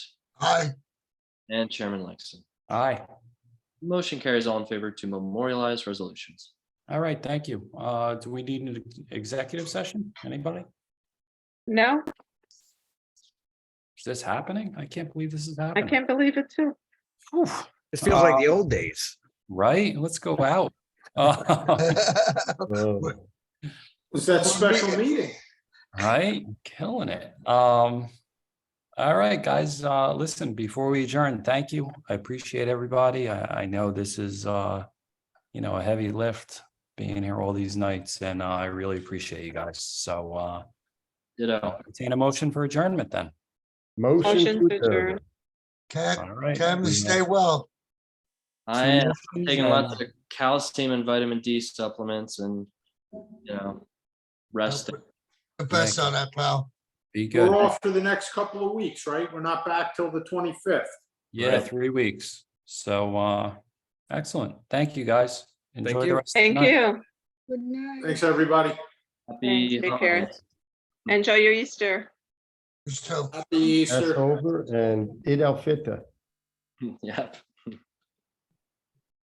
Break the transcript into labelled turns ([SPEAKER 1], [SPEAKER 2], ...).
[SPEAKER 1] Aye.
[SPEAKER 2] and Chairman Langston.
[SPEAKER 3] Aye.
[SPEAKER 2] Motion carries all in favor to memorialize resolutions.
[SPEAKER 3] All right, thank you. Uh, do we need an executive session? Anybody?
[SPEAKER 4] No,
[SPEAKER 3] Is this happening? I can't believe this is
[SPEAKER 4] I
[SPEAKER 3] happening.
[SPEAKER 4] can't believe it too.
[SPEAKER 3] Whew,
[SPEAKER 5] It feels like the old days.
[SPEAKER 3] Right? Let's go out. Uh,
[SPEAKER 6] Was that special meeting?
[SPEAKER 3] Right? Killing it. Um, all right, guys, uh, listen, before we adjourn, thank you. I appreciate everybody. I, I know this is, uh, you know, a heavy lift being here all these nights and uh, I really appreciate you guys. So, uh,
[SPEAKER 2] Ditto.
[SPEAKER 3] I'll entertain a motion for adjournment then.
[SPEAKER 4] Motion to adjourn.
[SPEAKER 1] Cam,
[SPEAKER 3] All right.
[SPEAKER 1] Cam,
[SPEAKER 3] We have
[SPEAKER 1] stay well.
[SPEAKER 2] I
[SPEAKER 3] two
[SPEAKER 2] am
[SPEAKER 3] motions
[SPEAKER 2] taking
[SPEAKER 3] and-
[SPEAKER 2] lots of calcium and vitamin D supplements and, you know, rest.
[SPEAKER 1] The best on that, pal.
[SPEAKER 3] Be
[SPEAKER 6] We're
[SPEAKER 3] good.
[SPEAKER 6] off for the next couple of weeks, right? We're not back till the twenty-fifth.
[SPEAKER 3] Yeah, three weeks. So, uh, excellent. Thank you, guys. Enjoy the
[SPEAKER 5] you.
[SPEAKER 3] rest. of the
[SPEAKER 4] Thank
[SPEAKER 3] night.
[SPEAKER 4] you.
[SPEAKER 6] Thanks, everybody.
[SPEAKER 2] Happy
[SPEAKER 4] Thanks, take care.
[SPEAKER 2] holidays.
[SPEAKER 4] Enjoy your Easter.
[SPEAKER 1] It's too.
[SPEAKER 6] Happy Easter.
[SPEAKER 7] Passover and Eid al-Fitr.
[SPEAKER 2] Yep.